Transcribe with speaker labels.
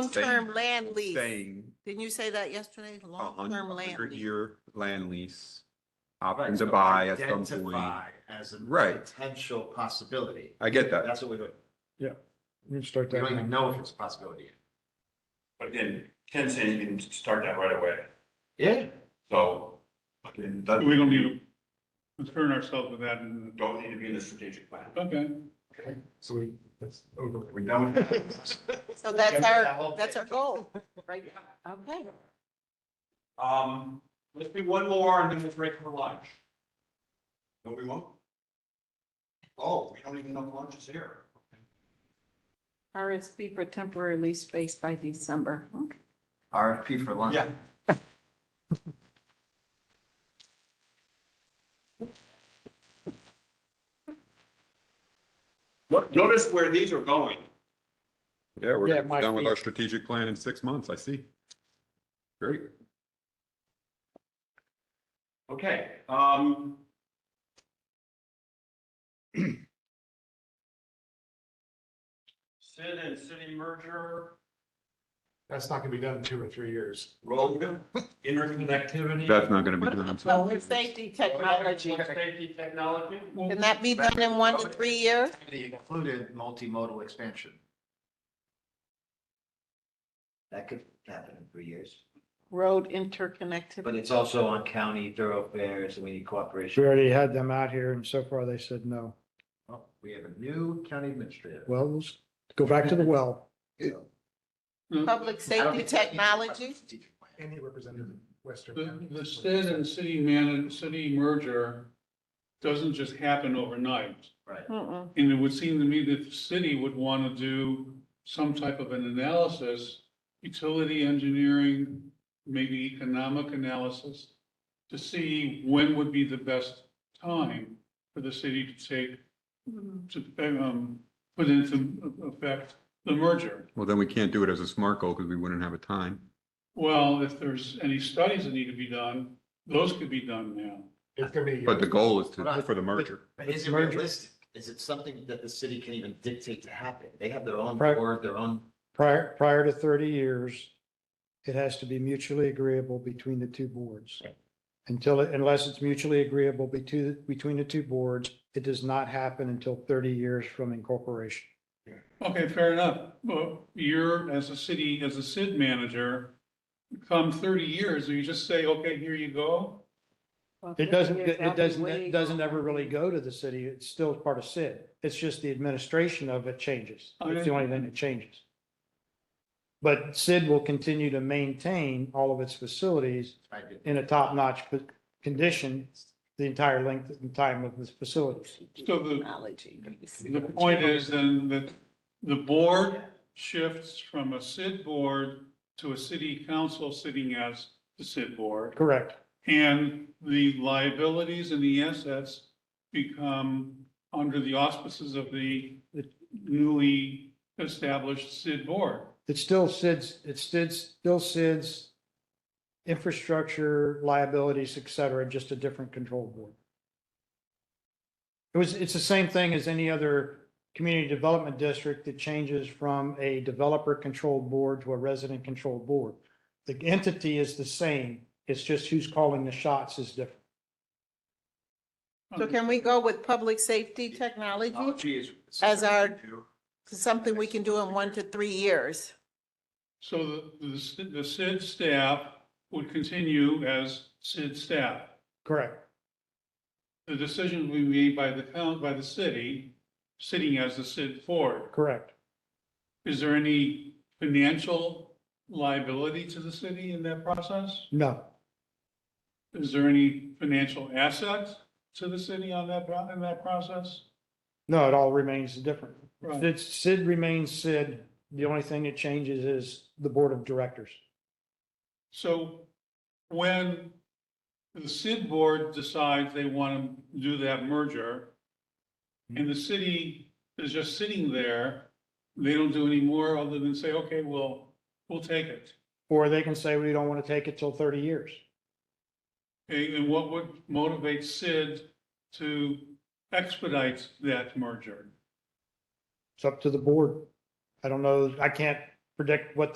Speaker 1: Long-term land lease.
Speaker 2: Saying,
Speaker 1: Didn't you say that yesterday?
Speaker 2: a
Speaker 1: Long-term land
Speaker 2: hundred
Speaker 1: lease.
Speaker 2: year land lease.
Speaker 3: Right,
Speaker 2: Option to
Speaker 3: so
Speaker 2: buy at some point.
Speaker 3: identify As a
Speaker 2: Right.
Speaker 3: potential possibility.
Speaker 2: I get that.
Speaker 3: That's what we're doing.
Speaker 4: We can start
Speaker 3: We
Speaker 4: that
Speaker 3: don't
Speaker 4: now.
Speaker 3: even know if it's a possibility.
Speaker 5: But again, Ken's saying you can start that right away,
Speaker 3: Yeah.
Speaker 5: so. Again, that,
Speaker 6: We're gonna be concern ourselves with that and,
Speaker 5: don't need to be in the strategic plan.
Speaker 6: okay.
Speaker 4: So we, that's over.
Speaker 5: We're done with that.
Speaker 1: So that's
Speaker 3: That
Speaker 1: our,
Speaker 3: whole
Speaker 1: that's our
Speaker 3: thing.
Speaker 1: goal, right? now. Okay.
Speaker 5: Um, let's do one more and then we'll break for lunch. No, we won't. Oh, we don't even know if lunch is here.
Speaker 7: RSP for temporary lease space by December. Okay.
Speaker 3: RFP for lunch.
Speaker 5: Yeah. Look, Notice where these are going.
Speaker 2: Yeah,
Speaker 4: Yeah,
Speaker 2: we're
Speaker 4: it might
Speaker 2: done with
Speaker 4: be-
Speaker 2: our strategic plan in six months, I see. Great.
Speaker 5: Okay, um. Sid and city merger,
Speaker 4: That's not gonna be done in two or three years.
Speaker 5: road interconnectivity.
Speaker 2: That's not gonna be done.
Speaker 1: So with safety technology,
Speaker 5: Safety technology.
Speaker 1: can that be done in one to three years?
Speaker 3: Included multimodal expansion. That could happen in three years.
Speaker 7: Road
Speaker 3: But
Speaker 7: interconnectivity.
Speaker 3: it's also on county thoroughfares and we need
Speaker 4: We
Speaker 3: cooperation.
Speaker 4: already had them out here and so far they said no.
Speaker 3: Oh, We have a new county administrator.
Speaker 4: Well, let's go back to the well.
Speaker 3: So-
Speaker 1: Public safety technology?
Speaker 4: Any representative of Western.
Speaker 6: The, the state and city man, city merger doesn't just happen overnight.
Speaker 3: Right.
Speaker 7: Mm-mm.
Speaker 6: And it would seem to me that the city would want to do some type of an analysis, utility engineering, maybe economic analysis, to see when would be the best time for the city to take, to, um, put into effect the merger.
Speaker 2: Well, then we can't do it as a smart goal because we wouldn't have a time.
Speaker 6: Well, if there's any studies that need to be done, those could be done now.
Speaker 4: It's gonna be.
Speaker 2: But the goal is to, for the merger.
Speaker 3: But is it realistic? Is it something that the city can even dictate to happen? They have their own
Speaker 4: Right.
Speaker 3: board, their own
Speaker 4: Prior, prior to thirty years, it has to be mutually agreeable between the two boards. Until, it- unless it's mutually agreeable between, between the two boards, it does not happen until thirty years from incorporation.
Speaker 6: Okay, fair enough. Well, you're, as a city, as a SID manager, come thirty years, do you just say, okay, here you go?
Speaker 7: Well,
Speaker 4: It doesn't,
Speaker 7: thirty years,
Speaker 4: it doesn't,
Speaker 7: that'd be way
Speaker 4: it doesn't ever
Speaker 7: gone.
Speaker 4: really go to the city. It's still part of Sid. It's just the administration of it changes. It's the only thing that changes. But Sid will continue to maintain all of its facilities in a top-notch p- condition the entire length and time of the facilities.
Speaker 6: So the-
Speaker 7: Technology.
Speaker 6: The point is then that the board shifts from a SID board to a city council sitting as the SID board.
Speaker 4: Correct.
Speaker 6: And the liabilities and the assets become under the auspices of the newly established SID board.
Speaker 4: It's still Sid's, it's Sid's, still Sid's infrastructure liabilities, et cetera, just a different control board. It was, it's the same thing as any other community development district that changes from a developer controlled board to a resident controlled board. The entity is the same. It's just who's calling the shots is different.
Speaker 1: So can we go with public safety technology?
Speaker 5: Technology is.
Speaker 1: As our- Something we can do in one to three years.
Speaker 6: So the, the s- the SID staff would continue as SID staff.
Speaker 4: Correct.
Speaker 6: The decision will be made by the count, by the city, sitting as the SID board.
Speaker 4: Correct.
Speaker 6: Is there any financial liability to the city in that process?
Speaker 4: No,
Speaker 6: Is there any financial asset to the city on that, pro- in that process?
Speaker 4: no, it all remains different.
Speaker 6: Right.
Speaker 4: Sid, Sid remains Sid. The only thing that changes is the board of directors.
Speaker 6: So when the SID board decides they want to do that merger, and the city is just sitting there, they don't do any more other than say, okay, well, we'll take it.
Speaker 4: Or they can say, we don't want to take it till thirty years.
Speaker 6: Okay, And what would motivate SID to expedite that merger?
Speaker 4: It's up to the board. I don't know, I can't predict what